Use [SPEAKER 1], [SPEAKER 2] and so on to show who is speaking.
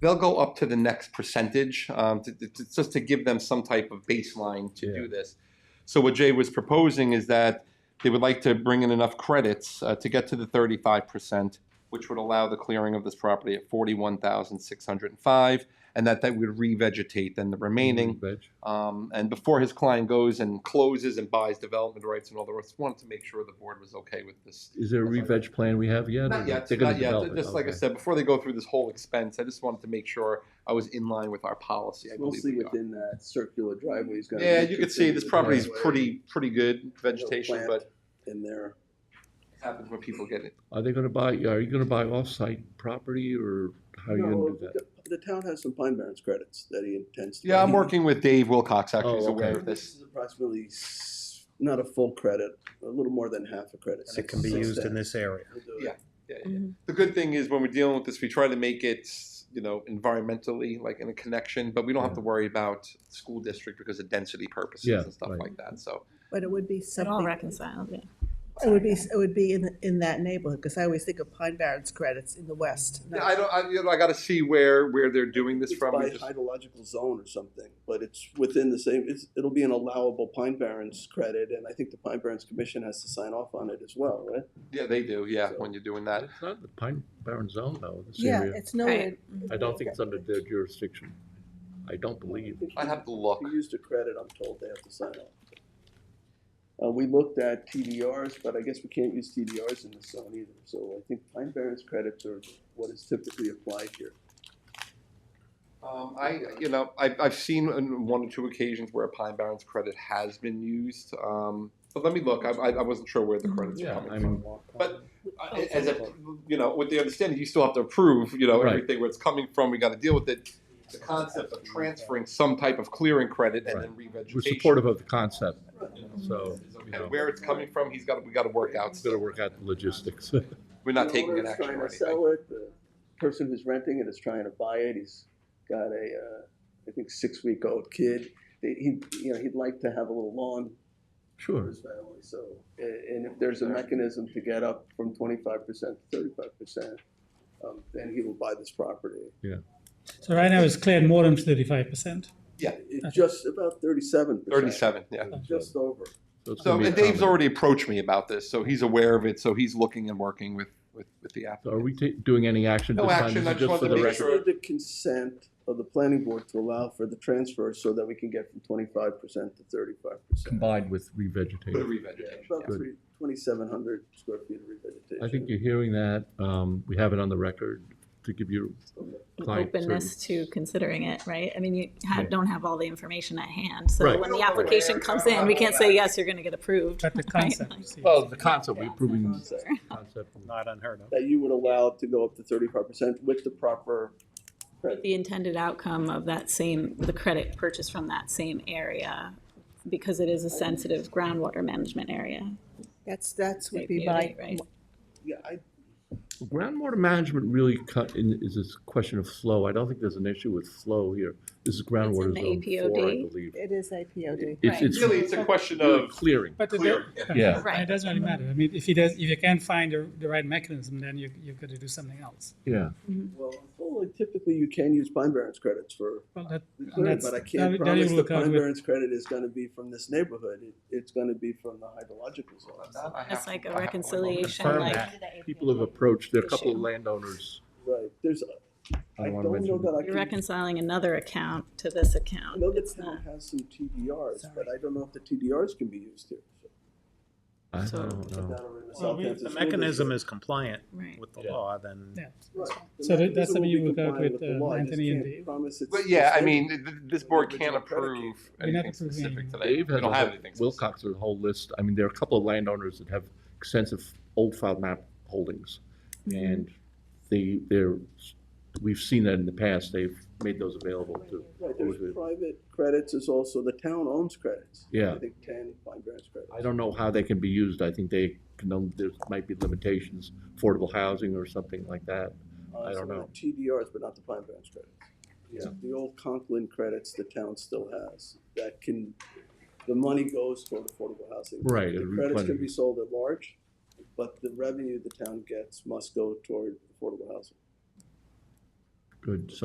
[SPEAKER 1] they'll go up to the next percentage, um, to, to- to- just to give them some type of baseline to do this. So what Jay was proposing is that they would like to bring in enough credits uh, to get to the thirty-five percent, which would allow the clearing of this property at forty-one thousand six hundred and five, and that that would revegetate then the
[SPEAKER 2] Mm-hmm.
[SPEAKER 1] remaining. Um, and before his client goes and closes and buys development rights and all the rest, wanted to make sure the board was okay with this
[SPEAKER 2] Is there a re-veg plan we have yet? or
[SPEAKER 1] Not yet,
[SPEAKER 2] they're gonna
[SPEAKER 1] not yet.
[SPEAKER 2] develop it?
[SPEAKER 1] Just like I
[SPEAKER 2] Okay.
[SPEAKER 1] said, before they go through this whole expense, I just wanted to make sure I was in line with our policy. I
[SPEAKER 3] We'll
[SPEAKER 1] believe
[SPEAKER 3] see
[SPEAKER 1] we are.
[SPEAKER 3] within that circular driveway. he's got a
[SPEAKER 1] Yeah, you could see this
[SPEAKER 3] entrance into the
[SPEAKER 1] property is
[SPEAKER 3] driveway
[SPEAKER 1] pretty, pretty good vegetation,
[SPEAKER 3] plant.
[SPEAKER 1] but
[SPEAKER 3] In there,
[SPEAKER 1] it happens when people get it.
[SPEAKER 2] Are they gonna buy, are you gonna buy off-site property or how are you
[SPEAKER 3] no,
[SPEAKER 2] gonna do that?
[SPEAKER 3] the, the town has some Pine Barrens credits that he intends to.
[SPEAKER 1] Yeah, I'm working with Dave Wilcox, actually,
[SPEAKER 2] Oh,
[SPEAKER 1] who's aware
[SPEAKER 2] okay.
[SPEAKER 1] of
[SPEAKER 3] This
[SPEAKER 1] this.
[SPEAKER 3] is approximately, s- not a full credit, a little more than half a credit.
[SPEAKER 4] It can be
[SPEAKER 3] Six
[SPEAKER 4] used in
[SPEAKER 3] cents.
[SPEAKER 4] this area.
[SPEAKER 3] We'll do it.
[SPEAKER 1] Yeah. Yeah, yeah. The good thing is when we're dealing with this, we try to make it, you know, environmentally, like in a connection, but we don't have to worry about school district because of density
[SPEAKER 2] Yeah,
[SPEAKER 1] purposes and stuff
[SPEAKER 2] right.
[SPEAKER 1] like that, so.
[SPEAKER 5] But it would be
[SPEAKER 6] It all
[SPEAKER 5] something, it
[SPEAKER 6] reconciled, yeah.
[SPEAKER 5] would be, it would be in, in that neighborhood, because I always think of Pine Barrens credits in the west.
[SPEAKER 1] Yeah, I don't, I, you know, I gotta see where, where they're doing this
[SPEAKER 3] It's
[SPEAKER 1] from.
[SPEAKER 3] by
[SPEAKER 1] Just-
[SPEAKER 3] hydrological zone or something, but it's within the same, it's, it'll be an allowable Pine Barrens credit, and I think the Pine Barrens Commission has to sign off on it as well, right?
[SPEAKER 1] Yeah, they do, yeah, when you're doing that.
[SPEAKER 2] It's not the Pine Barren Zone though, this
[SPEAKER 5] Yeah,
[SPEAKER 2] area.
[SPEAKER 5] it's nowhere. Mm-hmm.
[SPEAKER 6] Right.
[SPEAKER 2] I don't think it's under their jurisdiction. I don't believe.
[SPEAKER 3] think
[SPEAKER 1] I
[SPEAKER 3] he-
[SPEAKER 1] have to look.
[SPEAKER 3] If you used a credit, I'm told they have to sign off. Uh, we looked at TDRs, but I guess we can't use TDRs in this zone either, so I think Pine Barrens credits are what is typically applied here.
[SPEAKER 1] Um, I, you know, I've, I've seen on one or two occasions where a Pine Barrens credit has been used. Um, but let me look. I, I I wasn't sure where the credits were
[SPEAKER 2] Mm-hmm. Yeah,
[SPEAKER 1] coming
[SPEAKER 2] I
[SPEAKER 1] from.
[SPEAKER 2] mean,
[SPEAKER 1] But uh, as a, you know, with the understanding, you still have to approve, you know,
[SPEAKER 2] Right.
[SPEAKER 1] everything where it's coming from. We got to deal with it. The concept of transferring some type of clearing credit and then revegetation.
[SPEAKER 2] we're supportive of the concept,
[SPEAKER 1] you know,
[SPEAKER 2] so,
[SPEAKER 1] is
[SPEAKER 2] you
[SPEAKER 1] okay.
[SPEAKER 2] know,
[SPEAKER 1] Where it's coming from, he's got, we got to work out.
[SPEAKER 2] it's gonna work out the logistics.
[SPEAKER 1] We're not taking an
[SPEAKER 3] The owner's
[SPEAKER 1] action or
[SPEAKER 3] Trying to
[SPEAKER 1] anything.
[SPEAKER 3] sell it, the person who's renting it is trying to buy it, he's got a, uh, I think, six-week-old kid. He, he- you know, he'd like to have a little lawn for
[SPEAKER 2] Sure,
[SPEAKER 3] his family, so, a- and if there's a mechanism to get up from twenty-five percent to thirty-five percent, um, then he will buy this property.
[SPEAKER 7] So right now it's cleared more than thirty-five percent.
[SPEAKER 3] It's just about thirty-seven percent.
[SPEAKER 1] Thirty-seven, yeah.
[SPEAKER 3] Just over.
[SPEAKER 2] so it's
[SPEAKER 1] So
[SPEAKER 2] gonna be a
[SPEAKER 1] and Dave's
[SPEAKER 2] common-
[SPEAKER 1] already approached me about this, so he's aware of it, so he's looking and working with, with, with the
[SPEAKER 2] So Are
[SPEAKER 1] applicant.
[SPEAKER 2] we ta- doing any action?
[SPEAKER 1] No
[SPEAKER 2] this time?
[SPEAKER 1] action,
[SPEAKER 2] This
[SPEAKER 1] I
[SPEAKER 2] is
[SPEAKER 1] just
[SPEAKER 2] Just
[SPEAKER 1] wanted
[SPEAKER 2] for
[SPEAKER 1] to
[SPEAKER 2] the
[SPEAKER 1] make
[SPEAKER 2] record.
[SPEAKER 1] sure-
[SPEAKER 3] We need the consent of the planning board to allow for the transfer so that we can get from twenty-five percent to thirty-five percent.
[SPEAKER 2] Combined with
[SPEAKER 1] For the
[SPEAKER 2] revegetation.
[SPEAKER 1] revegetation.
[SPEAKER 3] About
[SPEAKER 2] Good.
[SPEAKER 3] three, twenty-seven hundred square feet of revegetation.
[SPEAKER 2] I think you're hearing that. Um, we have it on the record to give you client
[SPEAKER 6] Openness
[SPEAKER 2] certain-
[SPEAKER 6] to considering it, right? I mean, you ha-
[SPEAKER 2] Yeah.
[SPEAKER 6] don't have all the information at hand, so
[SPEAKER 2] Right.
[SPEAKER 6] when the application comes in, we can't say, yes, you're gonna get approved.
[SPEAKER 7] But the
[SPEAKER 6] right?
[SPEAKER 7] concept, you see.
[SPEAKER 2] Well, the concept, we're approving the
[SPEAKER 3] Concept.
[SPEAKER 2] concept.
[SPEAKER 4] Not unheard of.
[SPEAKER 3] That you would allow to go up to thirty-five percent with the proper credit.
[SPEAKER 6] The intended outcome of that same, the credit purchase from that same area, because it is a sensitive groundwater management area.
[SPEAKER 5] That's, that's would
[SPEAKER 6] Right,
[SPEAKER 5] be my,
[SPEAKER 6] beauty, right.
[SPEAKER 3] Yeah, I,
[SPEAKER 2] Groundwater management really cut in, is this question of flow. I don't think there's an issue with flow here. This is groundwater
[SPEAKER 6] the
[SPEAKER 2] zone four, I
[SPEAKER 6] APOD.
[SPEAKER 2] believe.
[SPEAKER 5] it is APOD.
[SPEAKER 2] It's, it's
[SPEAKER 1] Really, it's a question
[SPEAKER 2] really
[SPEAKER 1] of
[SPEAKER 2] clearing.
[SPEAKER 7] But it,
[SPEAKER 1] clear.
[SPEAKER 7] do-
[SPEAKER 2] Yeah.
[SPEAKER 6] Right.
[SPEAKER 7] it doesn't really matter. I mean, if you does, if you can't find the, the right mechanism, then you, you've got to do something else.
[SPEAKER 2] Yeah,
[SPEAKER 3] well, well, typically you can use Pine Barrens credits for
[SPEAKER 7] Well, that,
[SPEAKER 3] the
[SPEAKER 7] and
[SPEAKER 3] credit,
[SPEAKER 7] that's,
[SPEAKER 3] but I
[SPEAKER 7] that
[SPEAKER 3] can't
[SPEAKER 7] that
[SPEAKER 3] promise
[SPEAKER 7] you
[SPEAKER 3] the
[SPEAKER 7] look out
[SPEAKER 3] Pine
[SPEAKER 7] with,
[SPEAKER 3] Barrens credit is gonna be from this neighborhood. It, it's gonna be from the hydrological zone.
[SPEAKER 1] I have
[SPEAKER 6] It's
[SPEAKER 1] to-
[SPEAKER 6] like
[SPEAKER 1] I
[SPEAKER 6] a
[SPEAKER 1] have to-
[SPEAKER 6] reconciliation,
[SPEAKER 4] Confirm
[SPEAKER 6] like,
[SPEAKER 4] that.
[SPEAKER 2] people have approached, there are a couple of
[SPEAKER 6] Issue.
[SPEAKER 2] landowners.
[SPEAKER 3] Right, there's, I
[SPEAKER 2] wanna
[SPEAKER 3] don't know
[SPEAKER 2] mention-
[SPEAKER 3] that I
[SPEAKER 6] you're
[SPEAKER 3] can
[SPEAKER 6] reconciling another account to this
[SPEAKER 3] I
[SPEAKER 6] account.
[SPEAKER 3] know the
[SPEAKER 6] It's
[SPEAKER 3] town
[SPEAKER 6] not-
[SPEAKER 3] has some TDRs, but I don't know if the TDRs can be used here.
[SPEAKER 2] I
[SPEAKER 6] So-
[SPEAKER 2] don't know.
[SPEAKER 3] Down in the
[SPEAKER 7] Well, we-
[SPEAKER 3] Southampton
[SPEAKER 4] If the
[SPEAKER 3] School
[SPEAKER 4] mechanism
[SPEAKER 3] District.
[SPEAKER 4] is compliant
[SPEAKER 6] Right.
[SPEAKER 4] with the
[SPEAKER 2] Yeah.
[SPEAKER 4] law, then
[SPEAKER 7] yeah.
[SPEAKER 3] Right. The
[SPEAKER 7] So that-
[SPEAKER 3] mechanism
[SPEAKER 7] that's
[SPEAKER 3] will
[SPEAKER 7] something you
[SPEAKER 3] be
[SPEAKER 7] work out
[SPEAKER 3] compliant
[SPEAKER 7] with,
[SPEAKER 3] the
[SPEAKER 7] uh,
[SPEAKER 3] law. I just
[SPEAKER 7] Anthony and
[SPEAKER 3] can't
[SPEAKER 7] Dave.
[SPEAKER 3] promise it's
[SPEAKER 1] But
[SPEAKER 3] the
[SPEAKER 1] yeah, I
[SPEAKER 3] same.
[SPEAKER 1] mean, th- th- this board can't
[SPEAKER 3] Original predicate.
[SPEAKER 1] approve
[SPEAKER 7] We're not
[SPEAKER 1] anything
[SPEAKER 7] approving
[SPEAKER 1] specific
[SPEAKER 7] anything.
[SPEAKER 1] today.
[SPEAKER 2] Dave
[SPEAKER 1] We
[SPEAKER 2] has
[SPEAKER 1] don't
[SPEAKER 2] a
[SPEAKER 1] have
[SPEAKER 2] whole,
[SPEAKER 1] anything. specific.
[SPEAKER 2] Wilcox has a whole list. I mean, there are a couple of landowners that have extensive old file map holdings. And they, they're, we've seen that in the past. They've made those available to.
[SPEAKER 3] Right, there's
[SPEAKER 2] Okay.
[SPEAKER 3] private credits, there's also, the town owns credits.
[SPEAKER 2] Yeah.
[SPEAKER 3] I think ten, five grants credits.
[SPEAKER 2] I don't know how they can be used. I think they, can- there might be limitations, affordable housing or something like that.
[SPEAKER 3] Uh,
[SPEAKER 2] I don't
[SPEAKER 3] some of
[SPEAKER 2] know.
[SPEAKER 3] the TDRs, but not the prime grants credits.
[SPEAKER 2] Yeah.
[SPEAKER 3] The old Conklin credits the town still has, that can, the money goes toward affordable housing.
[SPEAKER 2] Right,
[SPEAKER 3] The
[SPEAKER 2] it'll
[SPEAKER 3] credits can
[SPEAKER 2] replenish.
[SPEAKER 3] be sold at large, but the revenue the town gets must go toward affordable housing.
[SPEAKER 2] Good, so